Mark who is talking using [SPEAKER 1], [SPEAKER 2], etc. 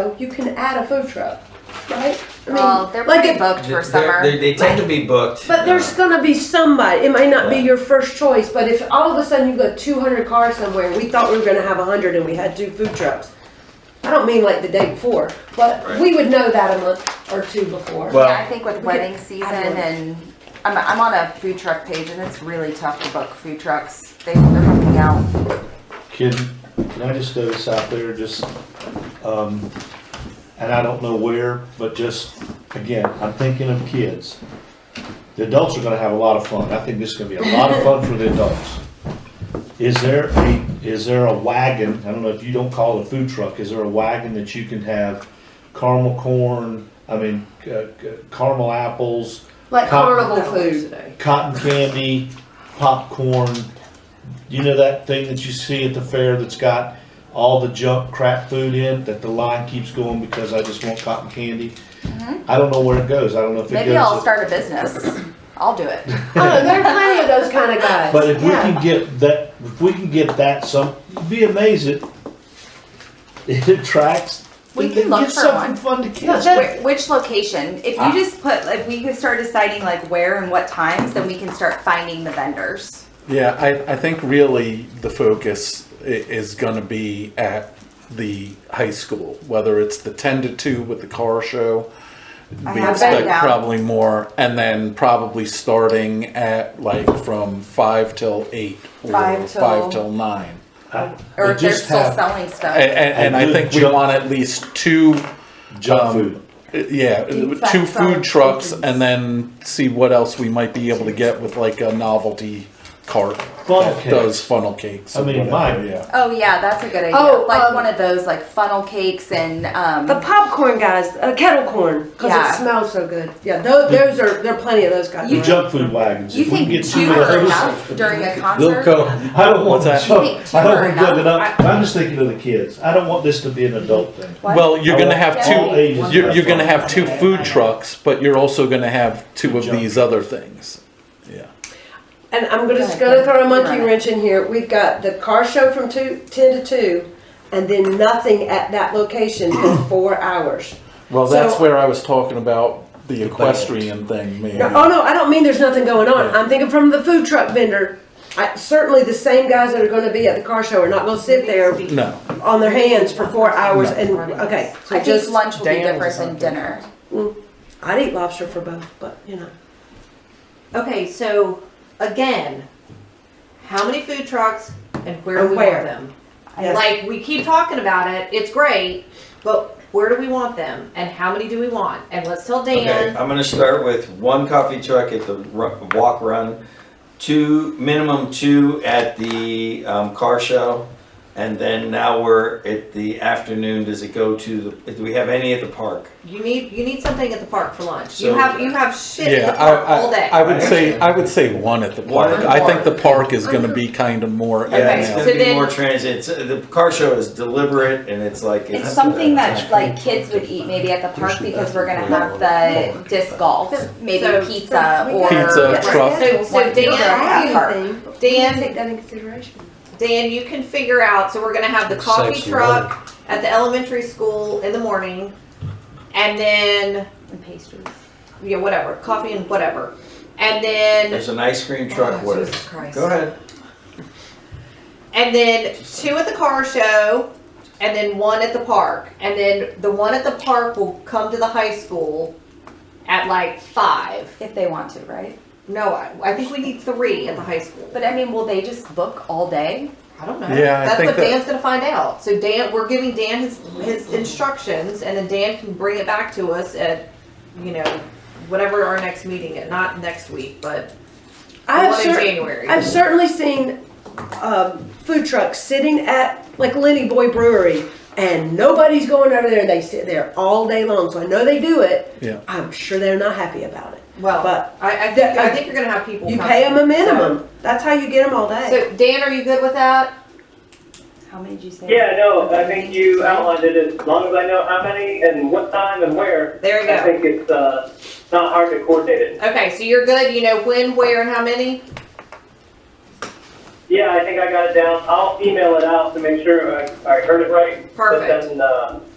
[SPEAKER 1] know, you can add a food truck, right? I mean,
[SPEAKER 2] Well, they're
[SPEAKER 1] like
[SPEAKER 2] pretty
[SPEAKER 1] it-
[SPEAKER 2] booked for
[SPEAKER 3] They're-
[SPEAKER 2] summer.
[SPEAKER 3] They, they tend to be booked.
[SPEAKER 1] But there's
[SPEAKER 3] uh,
[SPEAKER 1] gonna be somebody. It might not be
[SPEAKER 3] Yeah.
[SPEAKER 1] your first choice, but if all of a sudden you got 200 cars somewhere, and we thought we were gonna have 100 and we had two food trucks. I don't mean like the day before, but
[SPEAKER 3] Right.
[SPEAKER 1] we would know that a month or two before.
[SPEAKER 3] Well-
[SPEAKER 2] yeah, I think with wedding season
[SPEAKER 1] add one.
[SPEAKER 2] and I'm, I'm on a food truck page and it's really tough to book food trucks. They, they're helping out.
[SPEAKER 4] Kid, can I just throw this out there, just, um, and I don't know where, but just, again, I'm thinking of kids. The adults are gonna have a lot of fun, I think this is gonna be a lot of fun for the adults. Is there a, is there a wagon, I don't know if you don't call it a food truck, is there a wagon that you can have caramel corn, I mean, uh, caramel apples,
[SPEAKER 1] like
[SPEAKER 4] Cotton-
[SPEAKER 1] carnival food. Today.
[SPEAKER 4] cotton candy, popcorn. You know that thing that you see at the fair that's got all the junk crap food in that the line keeps going because I just want cotton candy? I don't know where it goes. I don't know if it
[SPEAKER 2] Mm-hmm. Maybe
[SPEAKER 4] goes.
[SPEAKER 2] I'll start a business. I'll do it.
[SPEAKER 1] oh, there are plenty of those kind of guys.
[SPEAKER 4] But if we
[SPEAKER 1] yeah.
[SPEAKER 4] can get that, if we can get that some, you'd be amazed it, it attracts.
[SPEAKER 2] We
[SPEAKER 4] it- it
[SPEAKER 2] can look
[SPEAKER 4] gives
[SPEAKER 2] for
[SPEAKER 4] something
[SPEAKER 2] one.
[SPEAKER 4] fun to
[SPEAKER 1] No,
[SPEAKER 4] kids.
[SPEAKER 1] that-
[SPEAKER 2] Where, which location? If you
[SPEAKER 4] Ah.
[SPEAKER 2] just put, if we could start deciding like where and what times, then we can start finding the vendors.
[SPEAKER 5] Yeah, I, I think really the focus i- is going to be at the high school, whether it's the 10 to 2 with the car show.
[SPEAKER 2] I
[SPEAKER 5] We
[SPEAKER 2] have
[SPEAKER 5] expect
[SPEAKER 2] that down.
[SPEAKER 5] probably more, and then probably starting at like from 5 till 8 or
[SPEAKER 2] Five till-
[SPEAKER 5] 5 till 9.
[SPEAKER 4] I-
[SPEAKER 2] Or
[SPEAKER 4] they
[SPEAKER 2] if they're
[SPEAKER 4] just
[SPEAKER 2] still
[SPEAKER 4] have
[SPEAKER 2] selling stuff.
[SPEAKER 5] And, and, and I
[SPEAKER 4] good
[SPEAKER 5] think we
[SPEAKER 4] junk-
[SPEAKER 5] want at least two
[SPEAKER 4] junk
[SPEAKER 5] um,
[SPEAKER 4] food.
[SPEAKER 5] Yeah,
[SPEAKER 1] Deep fat
[SPEAKER 5] two
[SPEAKER 1] fried
[SPEAKER 5] food trucks
[SPEAKER 1] chickens.
[SPEAKER 5] and then see what else we might be able to get with like a novelty cart.
[SPEAKER 4] Funnel
[SPEAKER 5] that
[SPEAKER 4] cakes.
[SPEAKER 5] Does funnel cakes.
[SPEAKER 4] I
[SPEAKER 5] or
[SPEAKER 4] mean,
[SPEAKER 5] whatever,
[SPEAKER 4] mine-
[SPEAKER 5] Yeah.
[SPEAKER 2] Oh yeah, that's a good idea.
[SPEAKER 1] Oh,
[SPEAKER 2] like
[SPEAKER 1] um,
[SPEAKER 2] one of those like funnel cakes and um,
[SPEAKER 1] the popcorn guys, uh, kettle corn, because
[SPEAKER 2] Yeah.
[SPEAKER 1] it smells so good. Yeah, those, those are there are plenty of those guys.
[SPEAKER 4] The
[SPEAKER 1] around.
[SPEAKER 4] junk food wagons.
[SPEAKER 2] you
[SPEAKER 4] If we can
[SPEAKER 2] think
[SPEAKER 4] get
[SPEAKER 2] two
[SPEAKER 4] of
[SPEAKER 2] are
[SPEAKER 4] those-
[SPEAKER 2] enough during a
[SPEAKER 3] They'll
[SPEAKER 2] concert?
[SPEAKER 3] come.
[SPEAKER 4] I don't want
[SPEAKER 5] What's that?
[SPEAKER 4] that.
[SPEAKER 2] Wait,
[SPEAKER 4] I don't want
[SPEAKER 2] two are enough.
[SPEAKER 4] that enough. I'm just thinking of the kids. I don't want this to be an adult thing.
[SPEAKER 2] What?
[SPEAKER 5] Well, you're gonna have
[SPEAKER 4] All
[SPEAKER 5] two,
[SPEAKER 4] ages.
[SPEAKER 5] you're, you're gonna have two food trucks, but you're also gonna have two of
[SPEAKER 4] Junk.
[SPEAKER 5] these other things. Yeah.
[SPEAKER 1] And I'm gonna- just
[SPEAKER 2] Go
[SPEAKER 1] gonna
[SPEAKER 2] ahead.
[SPEAKER 1] throw a monkey
[SPEAKER 2] Right.
[SPEAKER 1] wrench in here. We've got the car show from two, ten to two, and then nothing at that location for four hours.
[SPEAKER 5] Well,
[SPEAKER 1] So-
[SPEAKER 5] that's where I was talking about the equestrian thing, maybe.
[SPEAKER 1] No, oh no, I don't mean there's nothing going on. I'm thinking from the food truck vendor. I, certainly the same guys that are gonna be at the car show are not gonna sit there
[SPEAKER 5] No,
[SPEAKER 1] on their hands for four hours
[SPEAKER 5] No.
[SPEAKER 1] and, okay. So
[SPEAKER 2] I
[SPEAKER 1] just,
[SPEAKER 2] think lunch will be
[SPEAKER 6] Daniels
[SPEAKER 2] different
[SPEAKER 6] or
[SPEAKER 2] than dinner.
[SPEAKER 6] something.
[SPEAKER 1] I'd eat lobster for both, but you know.
[SPEAKER 6] Okay, so again, how many food trucks and where do
[SPEAKER 1] And
[SPEAKER 6] we
[SPEAKER 1] where?
[SPEAKER 6] want them?
[SPEAKER 1] Yes.
[SPEAKER 6] Like, we keep talking about it, it's great, but where do we want them and how many do we want? And let's tell
[SPEAKER 3] Okay,
[SPEAKER 6] Dan,
[SPEAKER 5] uh,
[SPEAKER 3] I'm gonna start with one coffee truck at the ru- walk run, two, minimum two at the um, car show. And then now we're at the afternoon, does it go to, the? do we have any at the park?
[SPEAKER 6] you need, you need something at the park for lunch. You
[SPEAKER 3] So-
[SPEAKER 6] have, you have shit at
[SPEAKER 5] yeah,
[SPEAKER 6] the park all
[SPEAKER 5] I, I, I
[SPEAKER 6] day.
[SPEAKER 5] would say, I would say one at the
[SPEAKER 3] One at
[SPEAKER 5] park.
[SPEAKER 3] the
[SPEAKER 5] I
[SPEAKER 3] park.
[SPEAKER 5] think the park is gonna be kind of more.
[SPEAKER 3] Yeah, it's
[SPEAKER 6] Okay,
[SPEAKER 3] gonna
[SPEAKER 6] so
[SPEAKER 3] be
[SPEAKER 6] then-
[SPEAKER 3] more transit, It's- the car show is deliberate and it's like.
[SPEAKER 2] It's something that like kids would eat maybe at the park because we're gonna have the disc golf, maybe
[SPEAKER 6] So-
[SPEAKER 2] pizza or
[SPEAKER 5] Pizza, truck.
[SPEAKER 6] So- so
[SPEAKER 2] One
[SPEAKER 6] Dan-
[SPEAKER 2] dinner at the park.
[SPEAKER 6] Dan,
[SPEAKER 1] Take that in consideration.
[SPEAKER 6] Dan, you can figure out, so we're gonna have the
[SPEAKER 7] It's
[SPEAKER 6] coffee
[SPEAKER 7] safe to
[SPEAKER 6] truck at the elementary school in the morning. And then,
[SPEAKER 2] and pastries.
[SPEAKER 6] yeah, whatever, coffee and whatever. And then
[SPEAKER 3] There's an ice cream truck,
[SPEAKER 6] Oh,
[SPEAKER 3] what?
[SPEAKER 6] Jesus Christ.
[SPEAKER 3] Go ahead.
[SPEAKER 6] And then two at the car show, and then one at the park. And then the one at the park will come to the high school at like five.
[SPEAKER 2] If they want to, right?
[SPEAKER 6] No, I, I think we need three at the high school.
[SPEAKER 2] But I mean, will they just book all day?
[SPEAKER 6] I don't know.
[SPEAKER 5] Yeah, I
[SPEAKER 6] That's
[SPEAKER 5] think
[SPEAKER 6] what
[SPEAKER 5] that-
[SPEAKER 6] Dan's gonna find out. So Dan, we're giving Dan his, his instructions, and then Dan can bring it back to us at, you know, whatever our next meeting, is. not next week, but
[SPEAKER 1] I
[SPEAKER 6] the
[SPEAKER 1] have
[SPEAKER 6] one in
[SPEAKER 1] certain.
[SPEAKER 6] January.
[SPEAKER 1] I've certainly seen um, food trucks sitting at like Lenny Boy Brewery, and nobody's going over there. They sit there all day long, so I know they do it.
[SPEAKER 5] Yeah.
[SPEAKER 1] I'm sure they're not happy about it.
[SPEAKER 6] Well,
[SPEAKER 1] but
[SPEAKER 6] I, I think, I
[SPEAKER 1] I-
[SPEAKER 6] think you're gonna have people.
[SPEAKER 1] You
[SPEAKER 6] come.
[SPEAKER 1] pay them a minimum. That's how you get them all day.
[SPEAKER 6] So Dan, are you good with that?
[SPEAKER 2] How many did you say?
[SPEAKER 8] Yeah, no, I think you outlined it, as long as I know how many and what time and where,
[SPEAKER 6] There you
[SPEAKER 8] I
[SPEAKER 6] go.
[SPEAKER 8] think it's, uh, not hard to coordinate it.
[SPEAKER 6] Okay, so you're good. You know when, where, and how many.
[SPEAKER 8] Yeah, I think I got it down, I'll email it out to make sure I, I heard it right.
[SPEAKER 6] Perfect.
[SPEAKER 8] But then, uh,